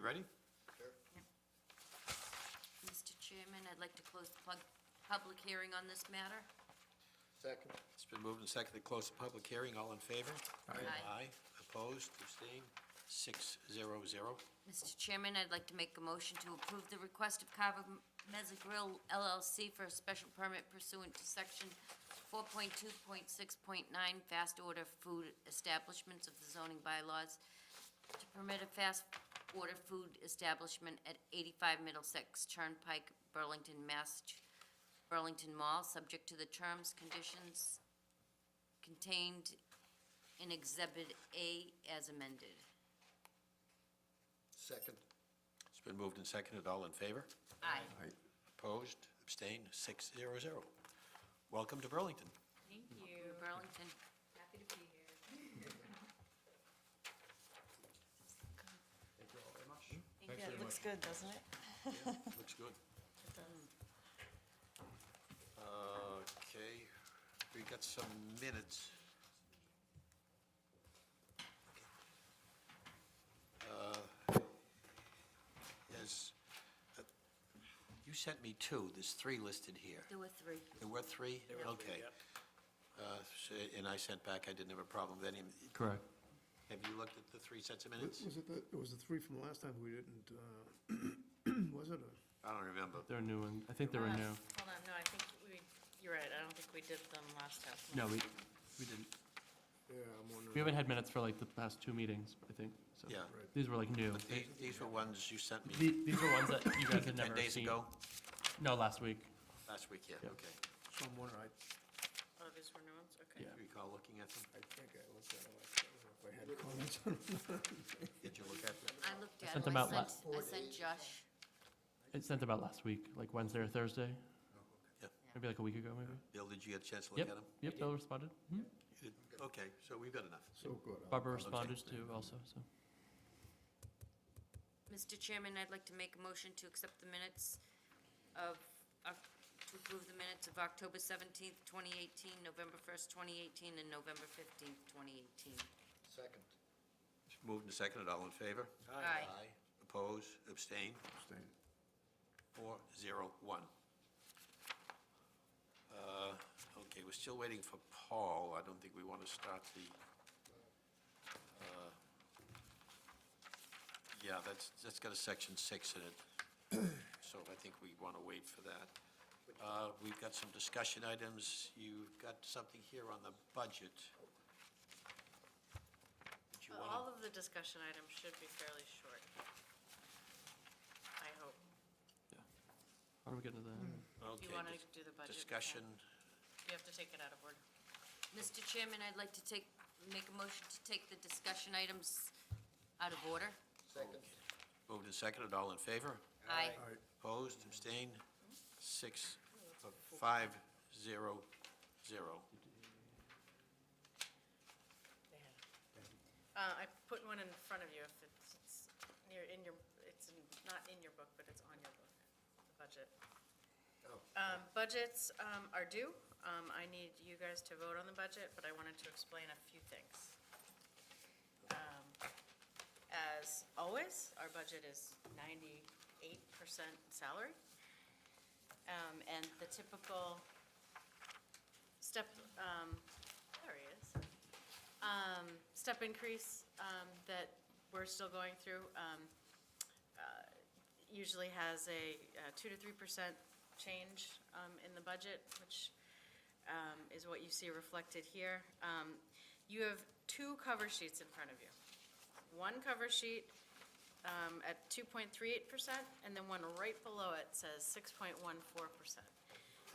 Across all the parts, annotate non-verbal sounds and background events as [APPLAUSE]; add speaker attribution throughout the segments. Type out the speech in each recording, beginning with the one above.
Speaker 1: Ready?
Speaker 2: Mr. Chairman, I'd like to close the plug- public hearing on this matter.
Speaker 3: Second.
Speaker 1: It's been moved and seconded to close the public hearing. All in favor?
Speaker 2: Aye.
Speaker 1: Opposed, abstained, six zero zero.
Speaker 2: Mr. Chairman, I'd like to make a motion to approve the request of Carver Meza Grill LLC for a special permit pursuant to Section 4.2.6.9 Fast Order Food Establishments of the zoning bylaws to permit a fast order food establishment at 85 Middlesex Turnpike, Burlington, Mass, Burlington Mall, subject to the terms, conditions contained in Exhibit A as amended.
Speaker 3: Second.
Speaker 1: It's been moved and seconded. All in favor?
Speaker 2: Aye.
Speaker 1: Opposed, abstained, six zero zero. Welcome to Burlington.
Speaker 4: Thank you.
Speaker 2: Burlington.
Speaker 4: Happy to be here.
Speaker 5: Yeah, it looks good, doesn't it?
Speaker 1: Looks good.
Speaker 5: It does.
Speaker 1: Okay, we got some minutes. Uh, There's, uh, you sent me two, there's three listed here.
Speaker 2: There were three.
Speaker 1: There were three? Okay. Uh, so- And I sent back, I didn't have a problem with any.
Speaker 6: Correct.
Speaker 1: Have you looked at the three sets of minutes?
Speaker 7: Was it the, it was the three from last time we didn't, uh, [CLEARS THROAT] was it a?
Speaker 1: I don't remember.
Speaker 6: They're new and, I think they were
Speaker 5: Uh,
Speaker 6: new.
Speaker 5: Hold on, no, I think we, you're right, I don't think we did them last time.
Speaker 6: No, we, we didn't.
Speaker 7: Yeah, I'm wondering.
Speaker 6: We haven't had minutes for like the past two meetings, I think, so.
Speaker 1: Yeah.
Speaker 6: These were like new.
Speaker 1: But the- these were ones you sent me
Speaker 6: The- These were ones that you guys had never
Speaker 1: 10 days
Speaker 6: seen.
Speaker 1: ago,
Speaker 6: No, last week.
Speaker 1: last week, yeah,
Speaker 6: Yeah.
Speaker 1: okay.
Speaker 7: So I'm wondering, I,
Speaker 5: Oh, these were new ones, okay.
Speaker 6: Yeah.
Speaker 1: Do you recall looking at them?
Speaker 7: I think I looked at them, I don't know if I had comments on
Speaker 1: Did you look at them?
Speaker 2: I looked at
Speaker 6: sent
Speaker 2: them.
Speaker 6: them
Speaker 2: I
Speaker 6: out la-
Speaker 2: sent, I sent Josh.
Speaker 6: It's sent about last week, like Wednesday or Thursday.
Speaker 1: Oh, Yeah.
Speaker 6: Maybe like a week ago, maybe.
Speaker 1: Bill, did you get a chance to look at
Speaker 6: Yep,
Speaker 1: them?
Speaker 6: yep, Bill responded. Mhm.
Speaker 1: You did? Okay, so we've got enough.
Speaker 7: so good. I'll-
Speaker 6: Barbara responded too also, so.
Speaker 2: Mr. Chairman, I'd like to make a motion to accept the minutes of, Oc- to approve the minutes of October 17th, 2018, November 1st, 2018, and November 15th, 2018.
Speaker 3: Second.
Speaker 1: It's Moved and seconded, all in favor?
Speaker 2: Aye.
Speaker 1: Oppose, abstain,
Speaker 7: Abstain.
Speaker 1: four, zero, one. Uh, Okay, we're still waiting for Paul. I don't think we want to start the, uh, yeah, that's, that's got a section six in it, [COUGHS] so I think we want to wait for that. Uh, We've got some discussion items. You've got something here on the budget. Did you
Speaker 5: Uh,
Speaker 1: want to?
Speaker 5: All of the discussion items should be fairly short. I hope.
Speaker 6: How do we get into the?
Speaker 1: Okay,
Speaker 5: You want to
Speaker 1: dis-
Speaker 5: do the budget? before?
Speaker 1: Discussion,
Speaker 5: You have to take it out of order.
Speaker 2: Mr. Chairman, I'd like to take, make a motion to take the discussion items out of order.
Speaker 3: Second.
Speaker 1: moved and seconded, all in favor?
Speaker 2: Aye.
Speaker 7: All right,
Speaker 1: Opposed, abstained, six, uh, five, zero, zero.
Speaker 5: Uh, I put one in front of you if it's, it's near, in your, it's in- not in your book, but it's on your book, the budget. Um, budgets, um, are due. Um, I need you guys to vote on the budget, but I wanted to explain a few things. Um, As always, our budget is ninety-eight percent salary. Um, and the typical step, um, there he is um, step increase um, that we're still going through um, uh, usually has a uh, two to three percent change um, in the budget, which um, is what you see reflected here. Um, You have two cover sheets in front of you. One cover sheet um, at two point three eight percent, and then one right below it says six point one four percent.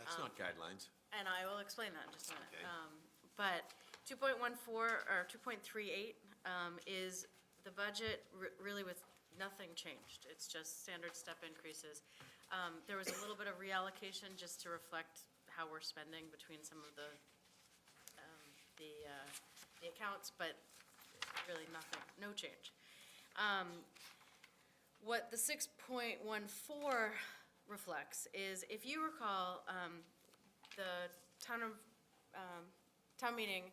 Speaker 1: That's
Speaker 5: Um,
Speaker 1: not guidelines.
Speaker 5: And I will explain that in just a minute.
Speaker 1: Okay.
Speaker 5: Um, But 2.14, or 2.38 um, is the budget re- really with nothing changed. It's just standard step increases. Um, There was a little bit of reallocation just to reflect how we're spending between some of the, um, the uh, the accounts, but really nothing, no change. Um, what the six point one four reflects is, if you recall, um, the town of, um, town meeting